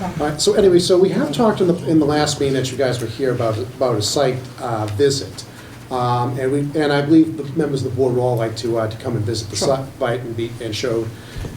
All right, so anyway, so we have talked in the, in the last meeting that you guys were here about, about a site uh, visit. Um, And we, and I believe the members of the board would all like to, uh, to come and visit the Sure. site and be, and show.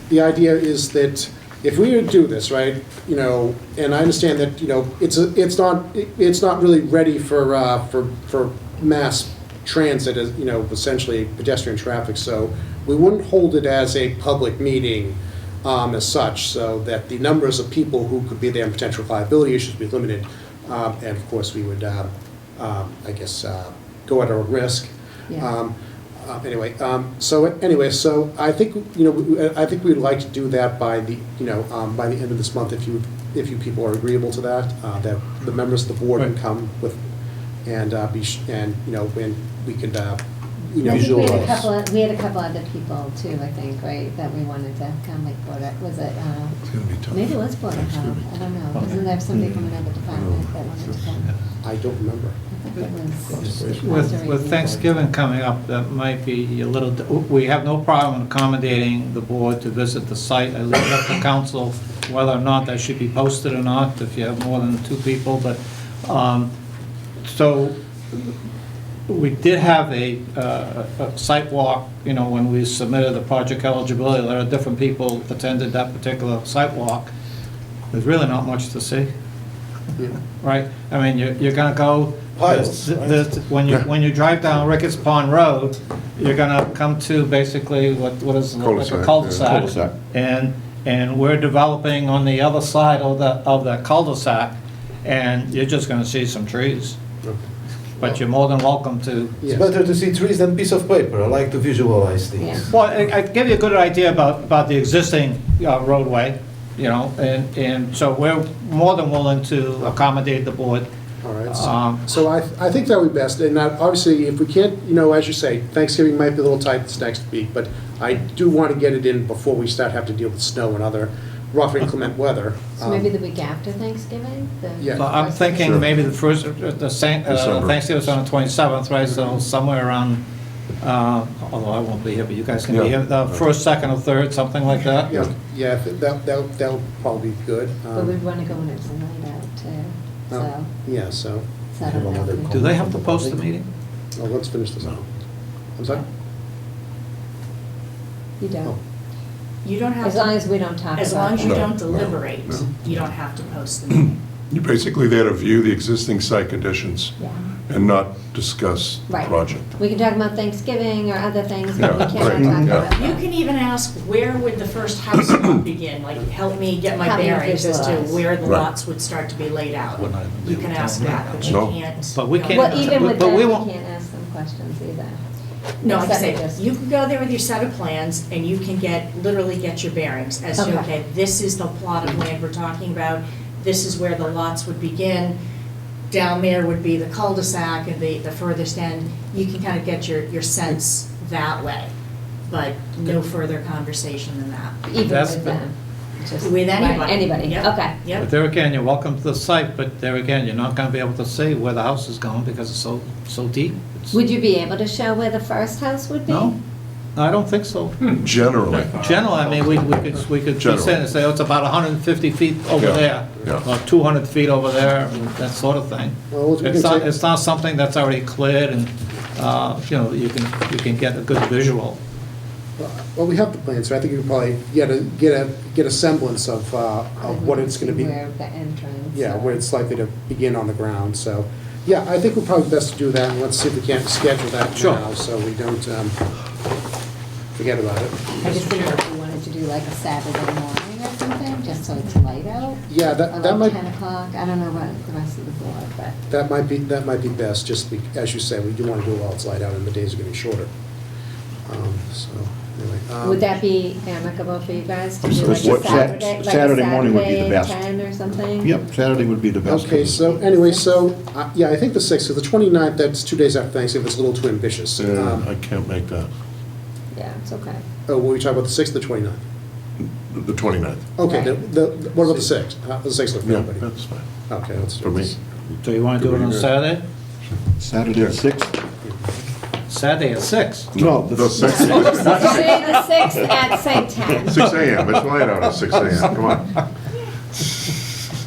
The idea is that if we were to do this, right, you know, and I understand that, you know, it's, a- it's not, it- it's not really ready for, uh, for, for mass transit, as, you know, essentially pedestrian traffic, so we wouldn't hold it as a public meeting um, as such, so that the numbers of people who could be there and potential liability issues be limited. Um, And of course, we would, um, um, I guess, uh, go at our risk. Yeah. Um, uh, Anyway, um, so anyway, so I think, you know, we- I think we'd like to do that by the, you know, um, by the end of this month, if you, if you people are agreeable to that, uh, that the members of the board can Right. come with, and uh, be, sh- and, you know, and we could, uh, you know. I think we had a Visualize. couple, of- we had a couple other people too, I think, right, that we wanted to come, like, Board of- was it, uh, It's gonna be tough. maybe it was Board of It's gonna Health, be I tough. don't know, wasn't there somebody Hmm. from another department that wanted to come? I don't remember. I think it was. With, with Thanksgiving coming up, that might be a little, we have no problem accommodating the board to visit the site. I leave it up to council whether or not that should be posted or not, if you have more than two people, but, um, so, we did have a, uh, a site walk, you know, when we submitted the project eligibility letter, different people attended that particular site walk. There's really not much to see right? I mean, you're, you're gonna go, Piles, th- th- when you, when you drive down Ricketts Pond Road, you're gonna come to basically what, what is, like Cul-de-sac, a yeah. cul-de-sac. Cul-de-sac. And, and we're developing on the other side of the, of the cul-de-sac, and you're just gonna see some trees. But you're more than welcome to It's better to see trees than piece of paper. I like to visualize things. Well, I I give you a good idea about, about the existing uh, roadway, you know, and, and so we're more than willing to accommodate the board. All right, so- Um, so I, I think that would be best, and I- obviously, if we can't, you know, as you say, Thanksgiving might be a little tight this next week, but I do want to get it in before we start having to deal with snow and other rough inclement weather. Um, So maybe the week after Thanksgiving, the. Yeah. Well, I'm first- thinking Sure. maybe the first, the Saint- uh, December. Thanksgiving's on the 27th, right, so somewhere around, uh, although I won't be here, but you guys can be Yeah. here, the first, second, or third, something like that? Yeah, yeah, that, that, that'll probably be good. But um, we'd wanna go when it's a night out too, so, um, Yeah, so, so I don't Have another know. Do they have to post the meeting? well, let's finish this up. I'm sorry? You don't, Oh. You don't have as long to, as we don't talk about. as long as you No, it. don't no, deliberate, no. Mm. you don't have to post the meeting. You're basically there to view the existing site conditions Yeah. and not discuss the Right. project. We can talk about Thanksgiving or other things, but we Yeah, right, cannot yeah. talk about. You can even ask, where would the first house lot begin? Like, help me get my Help me bearings as to visualize. where the Right. lots would start to be laid out. Well, I- You can ask that, but you No. can't. But we no, can't- Well, even with but that, we we won't- can't ask them questions either. No, I'm Except saying, just- you can go there with your set of plans, and you can get, literally get your bearings as to, Okay. okay, this is the plot of land we're talking about, this is where the lots would begin, down there would be the cul-de-sac and the, the furthest end, you can kind of get your, your sense that way, but no further conversation than that. Even That's with been- them. just- With anybody. Anybody, Yep, okay. But Yep, there again, you're welcome to the site, but there again, you're not gonna be able to see where the house is going because it's so, so deep. It's- Would you be able to show where the first house would be? No, I don't think so. Hmm. Generally, General, I mean, we, we could, we could General. just say, say, oh, it's about 150 feet over Yeah, there, yeah. or 200 feet over there, and that sort of thing. Well, we can It's not, take- it's not something that's already cleared, and, uh, you know, you can, you can get a good visual. Well, we have the plans, so I think you can probably get a, get a, get a semblance of, uh, of what it's gonna be. Where the entrance. Yeah, or- where it's likely to begin on the ground, so, yeah, I think we're probably best to do that, and let's see if we can't schedule that Sure. now, so we don't, um, forget about it. I just didn't know if you wanted to do like a Saturday morning or something, just so it's light out. Yeah, Or that, that like might, ten o'clock, I don't know what the rest of the board, but. that might be, that might be best, just be, as you say, we do wanna do it while it's light out, and the days are gonna be shorter. Um, so, anyway. um, Would that be amicable for you guys to I'm do sorry, like a what- Sat- Saturday, like a Saturday morning would be the Saturday at best. ten or something? Yep, Saturday would be the best. Okay, so anyway, so, uh, yeah, I think the sixth, or the twenty-ninth, that's two days after Thanksgiving, it's a little too ambitious. uh, Um, I can't make that, Yeah, it's okay. Oh, were we talking about the sixth or the twenty-ninth? the 29th. Okay, the, Right. the, what about the sixth? Uh, the sixth of Yeah, everybody? that's fine, Okay, let's for do me. this. So you want to do it on Saturday? Saturday at six? Saturday at 6. No, the The six. 6th, Saturday the sixth at St. Ted's. 6 AM, it's light out at 6 AM, come on.